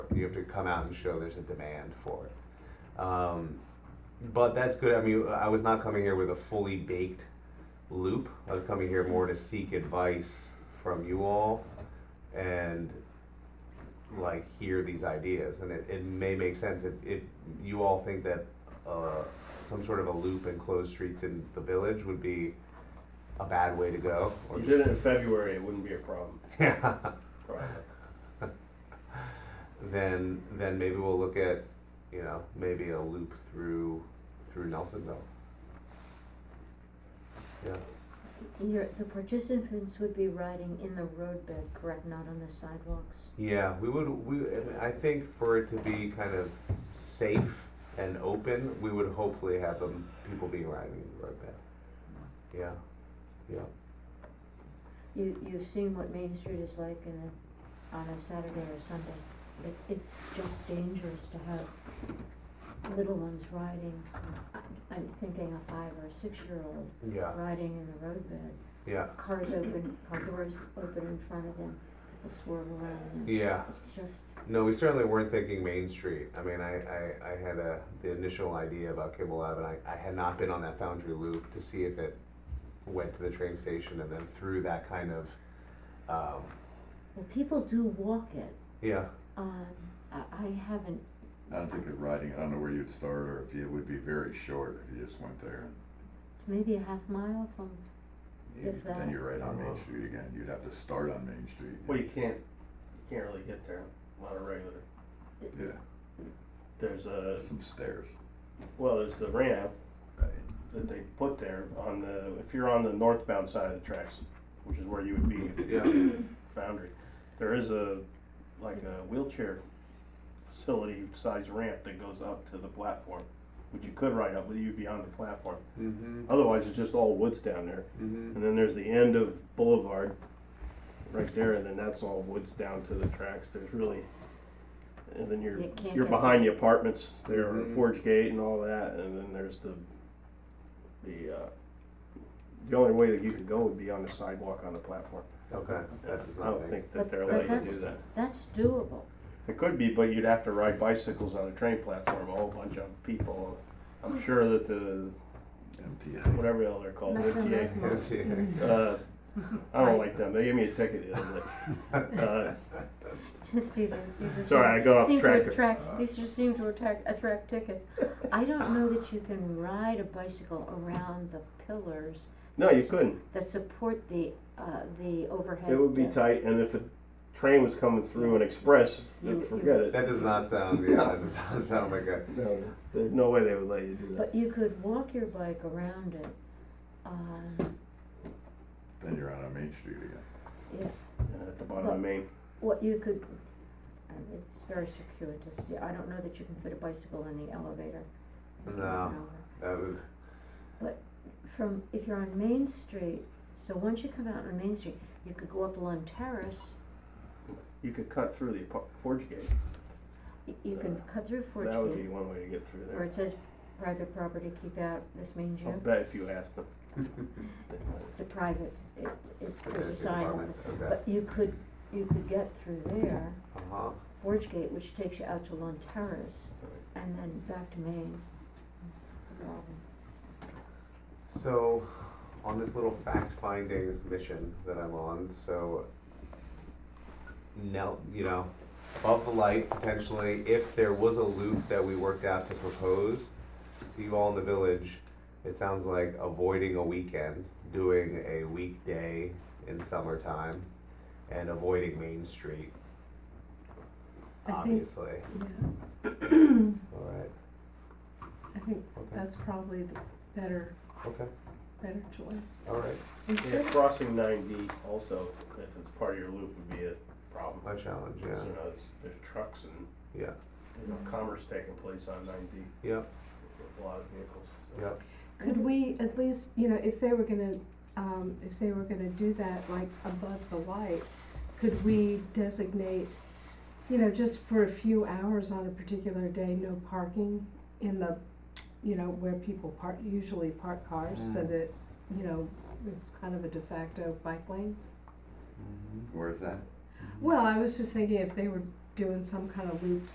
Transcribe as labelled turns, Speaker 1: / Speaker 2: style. Speaker 1: you have to come out and show there's a demand for it. Um, but that's good. I mean, I was not coming here with a fully baked loop. I was coming here more to seek advice from you all and like hear these ideas. And it, it may make sense if, if you all think that uh, some sort of a loop and closed streets in the village would be a bad way to go. or
Speaker 2: You
Speaker 1: just-
Speaker 2: did it in February, it wouldn't be a problem,
Speaker 1: Yeah.
Speaker 2: probably.
Speaker 1: then then maybe we'll look at you know maybe a loop through through Nelsonville. Yeah,
Speaker 3: Your, the participants would be riding in the roadbed, correct, not on the sidewalks?
Speaker 1: yeah, we would we I mean, I think for it to be kind of safe and open, we would hopefully have them people be riding in the roadbed. Yeah, yeah.
Speaker 3: You, you've seen what Main Street is like in a, on a Saturday or Sunday. It, it's just dangerous to have little ones riding, I- I'm thinking a five or six-year-old
Speaker 1: Yeah,
Speaker 3: riding in the roadbed.
Speaker 1: yeah,
Speaker 3: Cars open, car doors open in front of them, they swerve around them.
Speaker 1: yeah.
Speaker 3: It's just,
Speaker 1: No, we certainly weren't thinking Main Street. I mean, I, I, I had a, the initial idea about Kimball Lab, and I, I had not been on that Foundry Loop to see if it went to the train station and then through that kind of, um,
Speaker 3: well, people do walk it.
Speaker 1: yeah,
Speaker 3: Um, I, I haven't
Speaker 4: I don't think of riding, I don't know where you'd start or if you- it would be very short if you just went there.
Speaker 3: maybe a half mile from,
Speaker 4: and you-
Speaker 3: If that.
Speaker 4: Then you're right on Main
Speaker 1: Uh-huh.
Speaker 4: Street again. You'd have to start on Main Street.
Speaker 2: Well, you can't, you can't really get there on a regular.
Speaker 4: Yeah,
Speaker 2: There's a,
Speaker 4: some stairs.
Speaker 2: well, there's the ramp
Speaker 4: Right.
Speaker 2: that they put there on the, if you're on the northbound side of the tracks, which is where you would be if you're
Speaker 1: Mm-hmm,
Speaker 2: on Foundry, there is a, like a wheelchair facility size ramp that goes up to the platform, which you could ride up, but you'd be on the platform.
Speaker 1: mm-hmm,
Speaker 2: Otherwise, it's just all woods down there.
Speaker 1: mm-hmm,
Speaker 2: And then there's the end of Boulevard, right there, and then that's all woods down to the tracks, there's really, and then you're,
Speaker 3: You can't
Speaker 2: you're
Speaker 3: get-
Speaker 2: behind the apartments, there are
Speaker 1: Mhm.
Speaker 2: Forge Gate and all that, and then there's the, the, uh, the only way that you could go would be on the sidewalk on the platform.
Speaker 1: okay, that does
Speaker 2: I
Speaker 1: not
Speaker 2: don't
Speaker 1: make,
Speaker 2: think
Speaker 3: but,
Speaker 2: that they're
Speaker 3: but
Speaker 2: allowed to
Speaker 3: that's,
Speaker 2: do that.
Speaker 3: that's doable.
Speaker 2: It could be, but you'd have to ride bicycles on a train platform, a whole bunch of people,
Speaker 3: Hmm.
Speaker 2: I'm sure that the,
Speaker 4: MTA.
Speaker 2: whatever the hell they're called,
Speaker 3: Nothing
Speaker 2: MTA,
Speaker 3: like most.
Speaker 2: Uh, I don't like them. They gave me a ticket the other day. Uh,
Speaker 3: Just either, you just.
Speaker 2: Sorry, I got off
Speaker 3: seem to
Speaker 2: track.
Speaker 3: attract- these just seem to attract, attract tickets. I don't know that you can ride a bicycle around the pillars
Speaker 2: no, you couldn't.
Speaker 3: that support the, uh, the overhead.
Speaker 2: It would be
Speaker 3: uh,
Speaker 2: tight, and if a train was coming through an express,
Speaker 3: You-
Speaker 2: then forget it.
Speaker 1: that does not sound, yeah, that does not sound like a,
Speaker 2: No, there's no way they would let you do that.
Speaker 3: But you could walk your bike around it, um,
Speaker 4: Then you're on a Main Street again.
Speaker 2: Uh, at the bottom of Maine.
Speaker 3: what you could, uh, it's very circuitous, Yeah, I don't know that you can fit a bicycle in the elevator. I don't
Speaker 1: No.
Speaker 3: know.
Speaker 1: that was,
Speaker 3: from, if you're on Main Street, so once you come out on Main Street, you could go up Lund Terrace,
Speaker 2: You could cut through the apart- Forge Gate.
Speaker 3: y- you can cut through Forge
Speaker 2: Uh, That would be
Speaker 3: Gate,
Speaker 2: one way to get through
Speaker 3: where
Speaker 2: there.
Speaker 3: it says private property, keep out, this means
Speaker 2: I'll
Speaker 3: you,
Speaker 2: bet if you asked them. they might.
Speaker 3: it's a private, it, it,
Speaker 1: okay,
Speaker 3: there's a sign, that says-
Speaker 1: apartments, okay,
Speaker 3: but you could, you could get through there,
Speaker 1: uh-huh,
Speaker 3: Forge Gate, which takes you out to Lund Terrace, and then back to Main. It's a problem.
Speaker 1: so, on this little fact-finding mission that I'm on, so, no, you know, above the light potentially, if there was a loop that we worked out to propose to you all in the village, it sounds like avoiding a weekend, doing a weekday in summertime, and avoiding Main Street,
Speaker 5: I think,
Speaker 1: obviously.
Speaker 5: yeah,
Speaker 1: All right,
Speaker 5: I think
Speaker 1: okay,
Speaker 5: that's probably the better,
Speaker 1: okay,
Speaker 5: better choice.
Speaker 1: all right,
Speaker 2: Yeah, crossing 9D also, if it's part of your loop, would be a problem.
Speaker 1: my challenge,
Speaker 2: You
Speaker 1: yeah,
Speaker 2: know, there's, there's trucks and
Speaker 1: yeah,
Speaker 2: you
Speaker 3: Mm-hmm.
Speaker 2: know, commerce taking place on 9D.
Speaker 1: Yep.
Speaker 2: A lot of vehicles. so.
Speaker 1: Yep.
Speaker 5: Could we at least, you know, if they were gonna, um, if they were gonna do that, like above the light, could we designate, you know, just for a few hours on a particular day, no parking in the, you know, where people park, usually park cars, so
Speaker 1: Mm.
Speaker 5: that, you know, it's kind of a de facto bike lane?
Speaker 4: Where is that?
Speaker 5: mm-hmm. Well, I was just thinking if they were doing some kind of loop